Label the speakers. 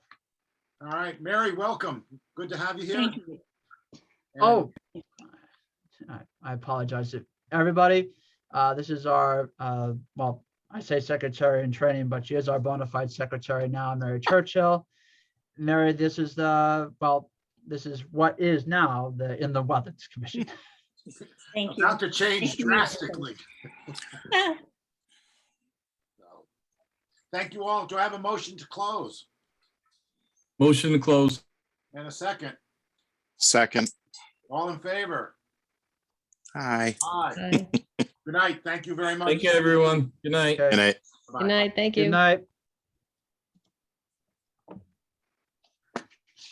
Speaker 1: All right, Mary, welcome. Good to have you here.
Speaker 2: Thank you.
Speaker 1: And
Speaker 3: Oh. I- I apologize to everybody. Uh, this is our, uh, well, I say secretary in training, but she is our bona fide secretary now, Mary Churchill. Mary, this is the, well, this is what is now the, in the Wetlands Commission.
Speaker 2: Thank you.
Speaker 1: About to change
Speaker 2: Thank you.
Speaker 1: drastically.
Speaker 2: Ah,
Speaker 1: So, Thank you all. Do I have a motion to close?
Speaker 4: Motion to close.
Speaker 1: And a second?
Speaker 5: Second.
Speaker 1: All in favor?
Speaker 5: Hi.
Speaker 1: Aye.
Speaker 6: Aye.
Speaker 1: Good night. Thank you very much.
Speaker 4: Thank you, everyone. Good night.
Speaker 3: Okay,
Speaker 5: Good night.
Speaker 1: Bye-bye.
Speaker 6: Good night, thank
Speaker 3: Good
Speaker 6: you.
Speaker 3: night.